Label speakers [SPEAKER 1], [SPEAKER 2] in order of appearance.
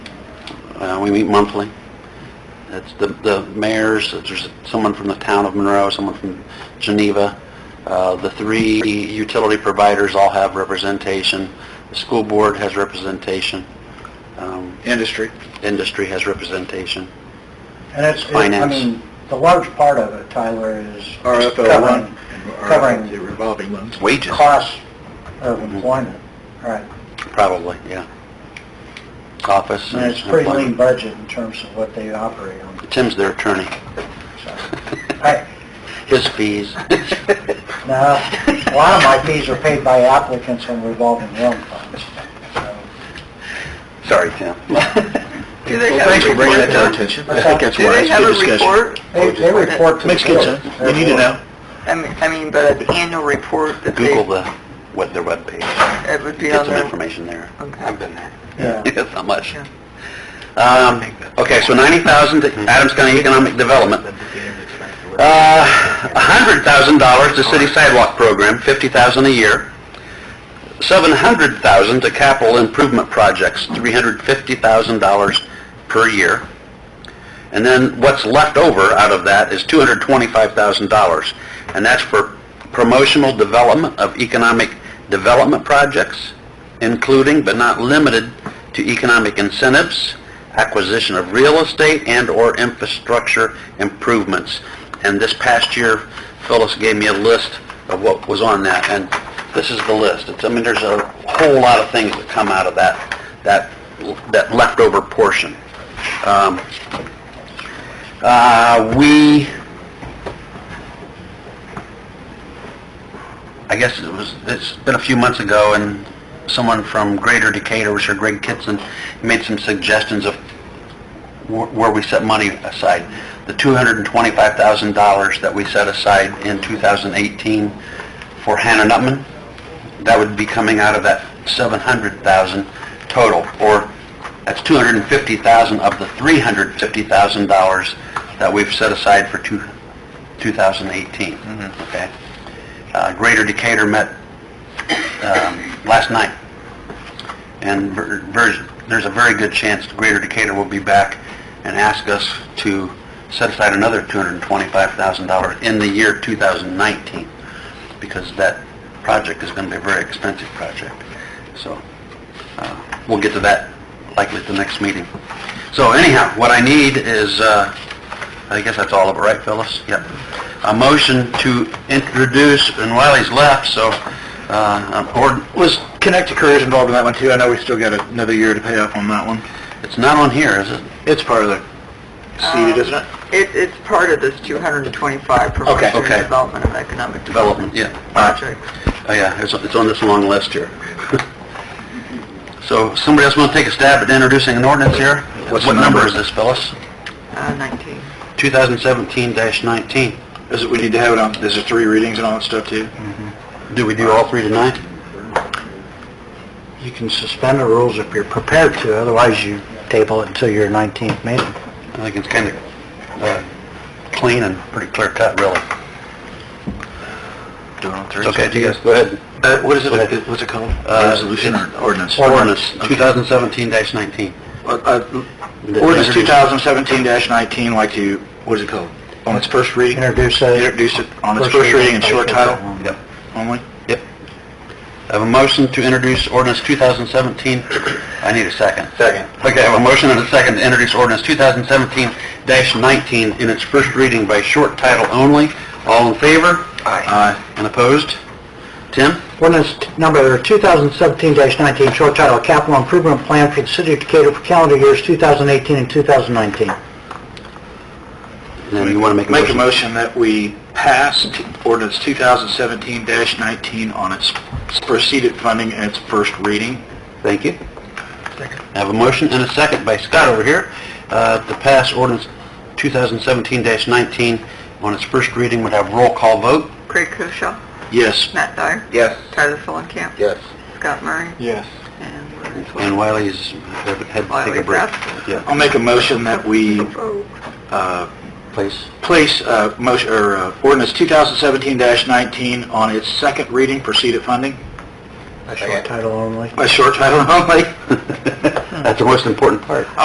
[SPEAKER 1] Uh, We meet monthly. It's the, the mayors, uh, there's someone from the town of Monroe, someone from Geneva. Uh, The three utility providers all have representation. The school board has representation. Um,
[SPEAKER 2] Industry.
[SPEAKER 1] Industry has representation.
[SPEAKER 3] And it's, it- I
[SPEAKER 1] Finance.
[SPEAKER 3] mean, the large part of it, Tyler, is
[SPEAKER 2] RFO
[SPEAKER 3] covering
[SPEAKER 2] one.
[SPEAKER 3] covering-
[SPEAKER 2] The revolving loans.
[SPEAKER 1] Wages.
[SPEAKER 3] costs of employment, right?
[SPEAKER 1] Probably, yeah. Office.
[SPEAKER 3] And it's a pretty lean
[SPEAKER 1] employment.
[SPEAKER 3] budget in terms of what they operate on,
[SPEAKER 1] Tim's their attorney.
[SPEAKER 3] so. I,
[SPEAKER 1] His fees.
[SPEAKER 3] now, a lot of my fees are paid by applicants on revolving loan funds, so.
[SPEAKER 1] Sorry, Tim.
[SPEAKER 4] Do they
[SPEAKER 2] Well,
[SPEAKER 4] have a
[SPEAKER 2] thanks for bringing that
[SPEAKER 4] report?
[SPEAKER 2] to our attention. I think that's
[SPEAKER 4] Do
[SPEAKER 2] why
[SPEAKER 4] they
[SPEAKER 2] it's
[SPEAKER 4] have
[SPEAKER 2] good
[SPEAKER 4] a
[SPEAKER 2] discussion.
[SPEAKER 4] report?
[SPEAKER 3] They, they report to the
[SPEAKER 2] Makes good
[SPEAKER 3] board.
[SPEAKER 2] sense. We need to
[SPEAKER 3] Therefore,
[SPEAKER 2] know.
[SPEAKER 4] I mean, I mean, but an annual report that they,
[SPEAKER 1] Google the, what their webpage.
[SPEAKER 4] it would be
[SPEAKER 1] Get
[SPEAKER 4] on
[SPEAKER 1] some
[SPEAKER 4] their...
[SPEAKER 1] information there.
[SPEAKER 4] Okay.
[SPEAKER 1] I've been there.
[SPEAKER 3] Yeah.
[SPEAKER 1] It's not much.
[SPEAKER 4] Yeah.
[SPEAKER 1] Um, okay, so 90,000 to Adams County Economic Development. Uh, $100,000 to City Sidewalk Program, 50,000 a year. 700,000 to capital improvement projects, $350,000 per year. And then what's left over out of that is $225,000. And that's for promotional development of economic development projects, including but not limited to economic incentives, acquisition of real estate and/or infrastructure improvements. And this past year, Phyllis gave me a list of what was on that, and this is the list. It's, I mean, there's a whole lot of things that come out of that, that, that leftover portion. Um, uh, we, I guess it was, it's been a few months ago, and someone from Greater Decatur, Sir Greg Kitson, made some suggestions of wh- where we set money aside. The $225,000 that we set aside in 2018 for Hannah Nutman, that would be coming out of that 700,000 total, or that's 250,000 of the $350,000 that we've set aside for two- 2018, okay? Uh, Greater Decatur met um, last night, and ver- ver- there's a very good chance Greater Decatur will be back and ask us to set aside another $225,000 in the year 2019 because that project is going to be a very expensive project. So, uh, we'll get to that likely at the next meeting. So anyhow, what I need is, uh, I guess that's all of it, right, Phyllis? Yep. A motion to introduce, and Wiley's left, so, uh, um, or,
[SPEAKER 2] Was Connected Careers involved in that one too? I know we still got another year to pay off on that one.
[SPEAKER 1] it's not on here, is it?
[SPEAKER 2] It's part of the seeded, isn't it?
[SPEAKER 4] Um, It, it's part of this 225
[SPEAKER 2] Okay,
[SPEAKER 4] promotion
[SPEAKER 1] okay.
[SPEAKER 4] and development of economic
[SPEAKER 1] Development,
[SPEAKER 4] development
[SPEAKER 1] yeah.
[SPEAKER 4] projects.
[SPEAKER 1] Oh, yeah, it's, it's on this long list here. So, somebody else want to take a stab at introducing an ordinance here?
[SPEAKER 2] What's
[SPEAKER 1] What
[SPEAKER 2] the
[SPEAKER 1] number
[SPEAKER 2] number?
[SPEAKER 1] is this, Phyllis?
[SPEAKER 4] Uh, 19.
[SPEAKER 1] 2017-19.
[SPEAKER 2] Is it, we need to have it on, is it three readings and all that stuff too?
[SPEAKER 1] Do we do all three tonight?
[SPEAKER 3] You can suspend the rules if you're prepared to, otherwise you table it until your 19th meeting.
[SPEAKER 1] I think it's kind of clean and pretty clear cut, really.
[SPEAKER 2] Doing on three.
[SPEAKER 1] Okay, you guys, go ahead.
[SPEAKER 2] Uh, what is
[SPEAKER 1] Go ahead.
[SPEAKER 2] it, what's it called?
[SPEAKER 1] Uh,
[SPEAKER 2] Resolution or ordinance?
[SPEAKER 1] Ordinance
[SPEAKER 2] Okay.
[SPEAKER 1] 2017-19.
[SPEAKER 2] Uh, uh, Ordinance 2017-19, like to, what is it called? On its first reading?
[SPEAKER 3] Introduce it.
[SPEAKER 2] Introduce it on its
[SPEAKER 3] First
[SPEAKER 2] first
[SPEAKER 3] reading,
[SPEAKER 2] reading and short
[SPEAKER 3] title
[SPEAKER 2] title
[SPEAKER 3] only.
[SPEAKER 1] Yep.
[SPEAKER 2] only?
[SPEAKER 1] Yep. I have a motion to introduce ordinance 2017, I need a second.
[SPEAKER 2] Second.
[SPEAKER 1] Okay, I have a motion and a second to introduce ordinance 2017-19 in its first reading by short title only. All in favor?
[SPEAKER 2] Aye.
[SPEAKER 1] And opposed? Tim?
[SPEAKER 3] Ordinance t- number 2017-19, short title, Capital Improvement Plan for the City of Decatur for calendar years 2018 and 2019.
[SPEAKER 1] And then you want to make a
[SPEAKER 2] Make a
[SPEAKER 1] motion?
[SPEAKER 2] motion that we pass t- ordinance 2017-19 on its proceeded funding and its first reading.
[SPEAKER 1] Thank you. I have a motion and a second by Scott over here uh, to pass ordinance 2017-19 on its first reading. Would have roll call vote.
[SPEAKER 4] Craig Koshaw,
[SPEAKER 2] Yes.
[SPEAKER 4] Matt Dyer,
[SPEAKER 2] Yes.
[SPEAKER 4] Tyler Fulenkamp.
[SPEAKER 1] Yes.
[SPEAKER 4] Scott Murray.
[SPEAKER 2] Yes.
[SPEAKER 4] And uh, Larry Flores.
[SPEAKER 1] And Wiley's had to take a
[SPEAKER 4] Wiley's
[SPEAKER 1] break.
[SPEAKER 4] absent.
[SPEAKER 1] Yeah,
[SPEAKER 2] I'll make a motion that we
[SPEAKER 4] Oh,
[SPEAKER 2] uh,
[SPEAKER 1] please.
[SPEAKER 2] place uh, motion, or uh, ordinance 2017-19 on its second reading, proceeded funding,
[SPEAKER 3] By short title only.
[SPEAKER 2] by short title only.
[SPEAKER 1] That's the most important part.